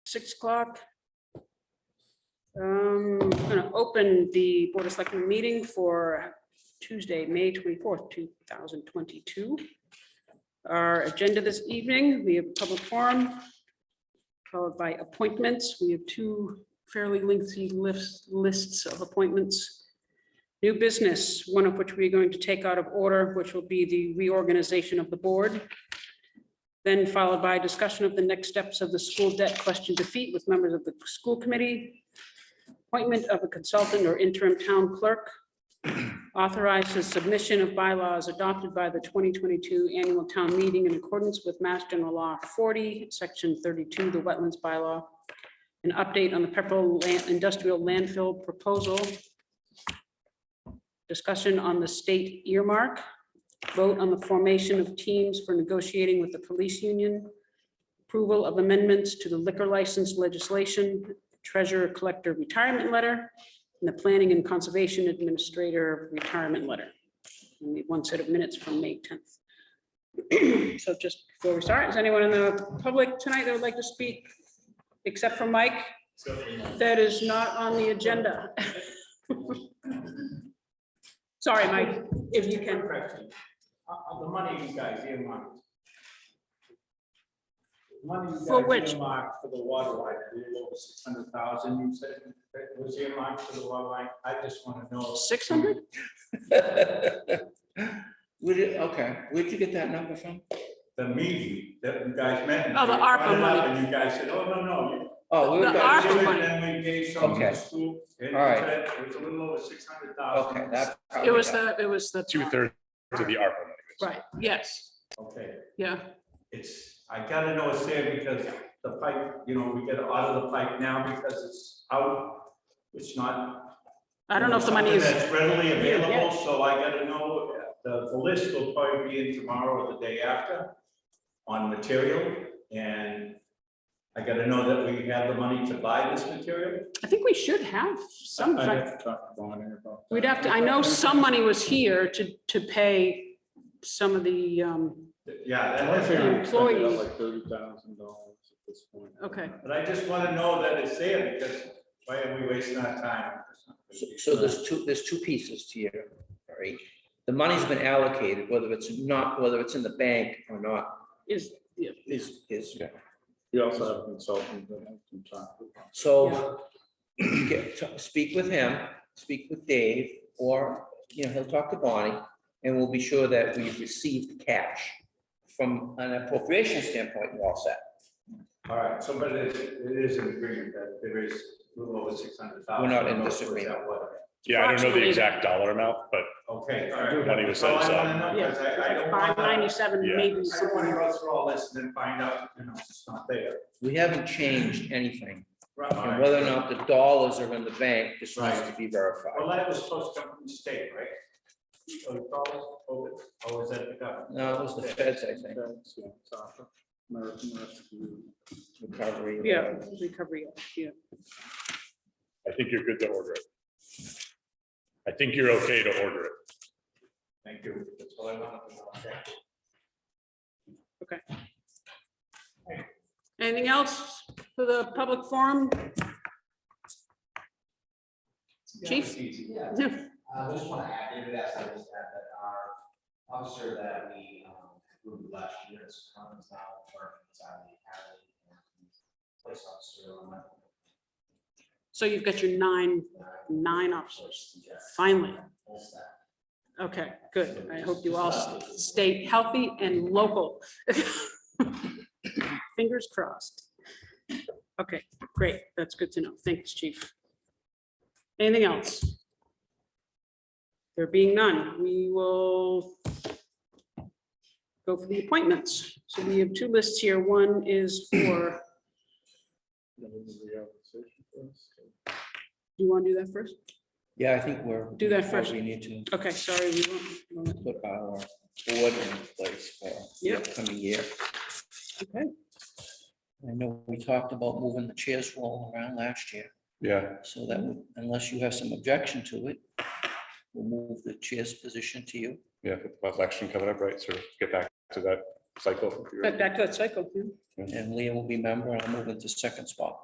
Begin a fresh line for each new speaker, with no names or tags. six o'clock. Um, I'm gonna open the Board of Selectmen meeting for Tuesday, May twenty-fourth, two thousand twenty-two. Our agenda this evening, we have public forum followed by appointments. We have two fairly lengthy lists, lists of appointments. New business, one of which we're going to take out of order, which will be the reorganization of the board then followed by discussion of the next steps of the school debt question defeat with members of the school committee, appointment of a consultant or interim town clerk, authorizes submission of bylaws adopted by the 2022 annual town meeting in accordance with Mass General Law 40, Section 32, the Wetlands Bylaw, an update on the Pepperell Lan- Industrial Landfill Proposal, discussion on the state earmark, vote on the formation of teams for negotiating with the police union, approval of amendments to the liquor license legislation, treasurer collector retirement letter, and the planning and conservation administrator retirement letter. We need one set of minutes from May 10th. So just before we start, is anyone in the public tonight that would like to speak, except for Mike? That is not on the agenda. Sorry, Mike, if you can.
Correction. Uh, uh, the money you guys earmarked. The Money you
For
guys
which?
earmarked for the water line, it was over six hundred thousand, you said, that was earmarked for the water line, I just wanna know.
Six hundred?
Would it, okay, where'd you get that number from?
The meeting that you guys met. and
Oh, the
we brought
ARPA
it up,
money.
And you guys said, oh, no, no. you-
Oh, we
The
were
you
ARPA
did
talking-
it,
money.
Then we gave some to the
Okay.
school. and
All right.
It was a little over six hundred thousand.
okay, that.
It was the, it was the.
two thirds of the ARPA money.
Right, yes,
Okay,
yeah,
it's, I gotta know it's there because the pipe, you know, we gotta audit the pipe now because it's out. It's not
I don't know if the money
Something
is,
That's readily
Yeah.
available, so I gotta know, the, the list will probably be in tomorrow or the day after on material, and I gotta know that we have the money to buy this material.
I think we should have some,
I'd
kind-
have to talk to Bonner about that.
we'd have to, I know some money was here to, to pay some of the, um,
Yeah,
I
that-
figured we spent it
Employees.
out like thirty thousand dollars at this point.
okay.
but I just wanna know that it's there, because why are we wasting our time?
So- So there's two, there's two pieces to your, right? The money's been allocated, whether it's not, whether it's in the bank or not,
Is, yeah,
is, is,
We also have a consultant that I can talk to.
so get, to- speak with him, speak with Dave, or, you know, he'll talk to Bonnie, and we'll be sure that we've received cash. From an appropriation standpoint, we're all set.
All right, so but it is, it is an agreement that there is a little over six hundred thousand.
We're not in disagreement.
Yeah, I don't know the
Approximately.
exact dollar amount, but
Okay, all right.
Money was set
That's all I
aside.
wanna know, 'cause I, I don't
five
want to.
ninety-seven,
Yeah.
maybe
I don't want to
somewhere.
go through all this and then find out, you know, it's not there.
We haven't changed anything.
Right.
And whether or not the dollars are in the bank, just needs to
Right.
be
Well,
verified.
that was supposed to come from the state, right? So it's all open, or is that the government?
No, it was the feds, I
Uh,
think,
That's, yeah, it's awesome. American Rescue.
recovery.
Yeah, recovery, yeah.
I think you're good to order it. I think you're okay to order it.
Thank you. That's all I wanted to know.
Anything else for the public forum? Chief?
Yeah, I just want to add, maybe that's, I just add that our officer that we, um, moved last year is Cummins now, working inside the academy. and he's Police officer on that.
So you've got your nine, nine officers, finally.
That's that.
Okay, good. I hope you all stay healthy and local. Fingers crossed. Okay, great. That's good to know. Thanks, chief. Anything else? There being none, we will go for the appointments. So we have two lists here. One is for,
That was the reorganization first.
do you want to do that first?
Yeah, I think we're.
Do that first.
We need to
Okay, sorry. we won't-
put our board in place for the
Yep.
upcoming year. Okay. I know we talked about moving the chairs rolling around last year,
Yeah.
so that would- unless you have some objection to it, we'll move the chair's position to you.
Yeah, with election coming up, right? So get back to that cycle. if you're-
Back to that cycle. yeah.
And Leah will be member, and I'll move into second spot.